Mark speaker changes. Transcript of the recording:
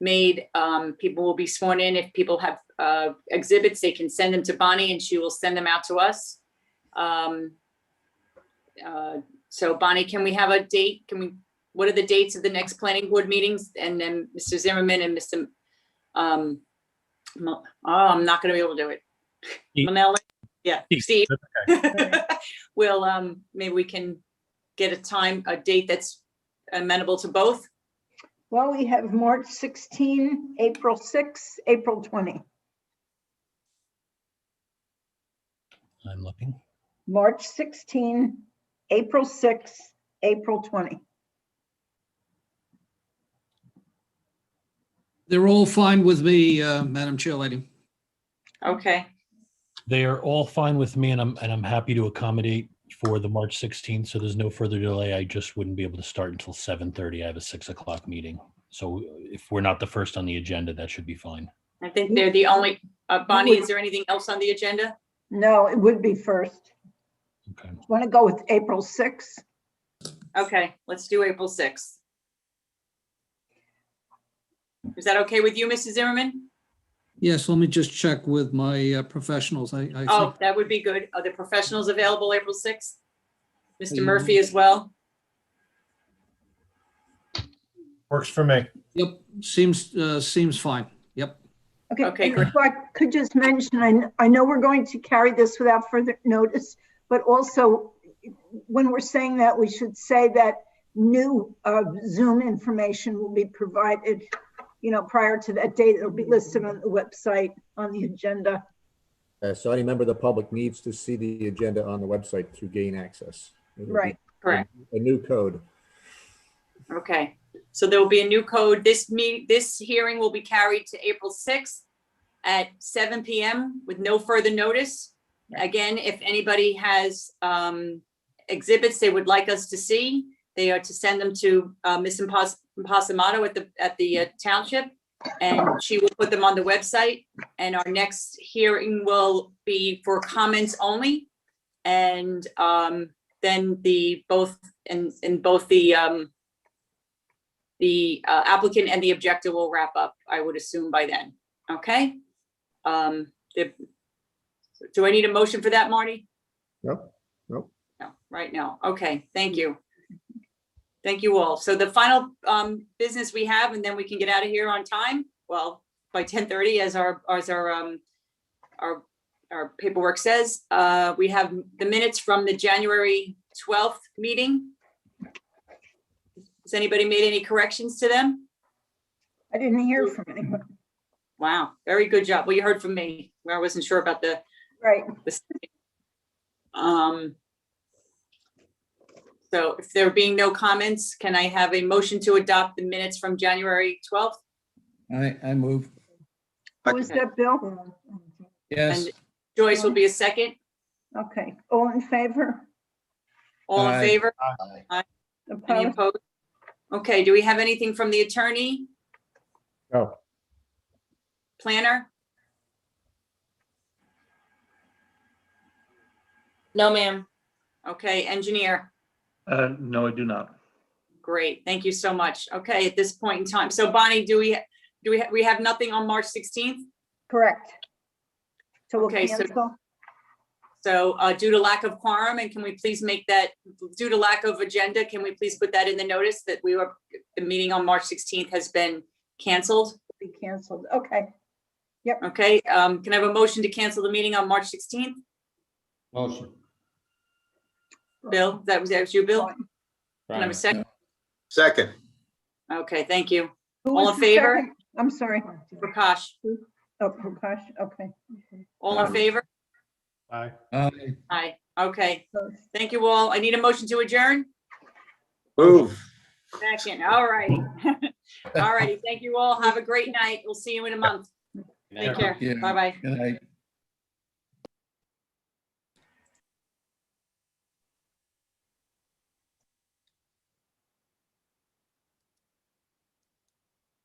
Speaker 1: made. Um, people will be sworn in. If people have, uh, exhibits, they can send them to Bonnie and she will send them out to us. Um, uh, so Bonnie, can we have a date? Can we, what are the dates of the next planning board meetings? And then Mr. Zimmerman and Mr. Um, Mo- oh, I'm not gonna be able to do it.
Speaker 2: Steve.
Speaker 1: Manelli? Yeah,
Speaker 2: Steve,
Speaker 1: Steve. Well, um, maybe we can get a time, a date that's amenable to both.
Speaker 3: Well, we have March 16, April 6, April 20.
Speaker 2: I'm looking.
Speaker 3: March 16, April 6, April 20.
Speaker 4: They're all fine with me, uh, Madam Chair Lady.
Speaker 1: Okay,
Speaker 2: They are all fine with me and I'm, and I'm happy to accommodate for the March 16th. So there's no further delay. I just wouldn't be able to start until 7:30. I have a six o'clock meeting. So if we're not the first on the agenda, that should be fine.
Speaker 1: I think they're the only, uh, Bonnie, is there anything else on the agenda?
Speaker 3: No, it would be first.
Speaker 2: Okay.
Speaker 3: Want to go with April 6?
Speaker 1: Okay, let's do April sixth. Is that okay with you, Mrs. Zimmerman?
Speaker 4: Yes, let me just check with my uh, professionals. I, I
Speaker 1: Oh,
Speaker 4: think,
Speaker 1: that would be good. Are the professionals available April sixth? Mr.
Speaker 4: Yeah.
Speaker 1: Murphy as well?
Speaker 5: Works for me.
Speaker 4: yep, seems, uh, seems fine. Yep.
Speaker 3: Okay.
Speaker 1: Okay,
Speaker 3: and
Speaker 1: great.
Speaker 3: if I could just mention, I, kn- I know we're going to carry this without further notice, but also when we're saying that, we should say that new uh, Zoom information will be provided, you know, prior to that date. It'll be listed on the website, on the agenda.
Speaker 6: Uh, So any member of the public needs to see the agenda on the website to gain access. It'll be
Speaker 3: Right.
Speaker 1: Correct.
Speaker 6: A new code.
Speaker 1: Okay, so there will be a new code. This meet, this hearing will be carried to April sixth at seven PM with no further notice. Again, if anybody has um exhibits they would like us to see, they are to send them to uh Ms. Impos- Impasamato at the, at the uh, township. And she will put them on the website and our next hearing will be for comments only. And um then the both, and and both the um the uh, applicant and the objector will wrap up, I would assume by then, okay? Um, if- do I need a motion for that, Marty?
Speaker 6: Nope, nope.
Speaker 1: No, right now, okay, thank you. Thank you all. So the final um business we have, and then we can get out of here on time, well, by ten thirty as our, as our um our, our paperwork says, uh, we have the minutes from the January twelfth meeting. Has anybody made any corrections to them?
Speaker 3: I didn't hear from anyone.
Speaker 1: Wow, very good job. Well, you heard from me. where I wasn't sure about the,
Speaker 3: Right.
Speaker 1: um. So if there being no comments, can I have a motion to adopt the minutes from January twelfth?
Speaker 4: I, I move.
Speaker 3: Who is that, Bill?
Speaker 4: Yes.
Speaker 1: Joyce will be a second.
Speaker 3: Okay. All in favor?
Speaker 1: All in
Speaker 4: Aye.
Speaker 1: favor? Any
Speaker 3: Opposed?
Speaker 1: opposed? Okay, do we have anything from the attorney,
Speaker 6: Oh,
Speaker 1: planner?
Speaker 7: No, ma'am.
Speaker 1: Okay, engineer?
Speaker 8: Uh, no, I do not.
Speaker 1: Great, thank you so much. Okay, at this point in time. So Bonnie, do we, do we, we have nothing on March sixteenth?
Speaker 3: Correct. So we'll
Speaker 1: Okay, so-
Speaker 3: cancel.
Speaker 1: So uh, due to lack of quorum, and can we please make that, due to lack of agenda, can we please put that in the notice that we were, the meeting on March 16th has been canceled?
Speaker 3: Be canceled. Okay.
Speaker 1: Okay, um, can I have a motion to cancel the meeting on March 16th?
Speaker 5: Motion.
Speaker 1: Bill, that was, that was you, Bill? Can I have a second?
Speaker 5: Second.
Speaker 1: Okay, thank you.
Speaker 3: Who
Speaker 1: All
Speaker 3: was
Speaker 1: in
Speaker 3: the
Speaker 1: favor?
Speaker 3: second? I'm sorry.
Speaker 1: Prakash,
Speaker 3: Oh, Prakash, okay.
Speaker 1: all in favor?
Speaker 5: Aye.
Speaker 1: Aye, okay. Thank you all. I need a motion to adjourn?
Speaker 5: Move.
Speaker 1: Second, all righty. All righty, thank you all. Have a great night. We'll see you in a month. Take care. Bye-bye.
Speaker 4: Good night.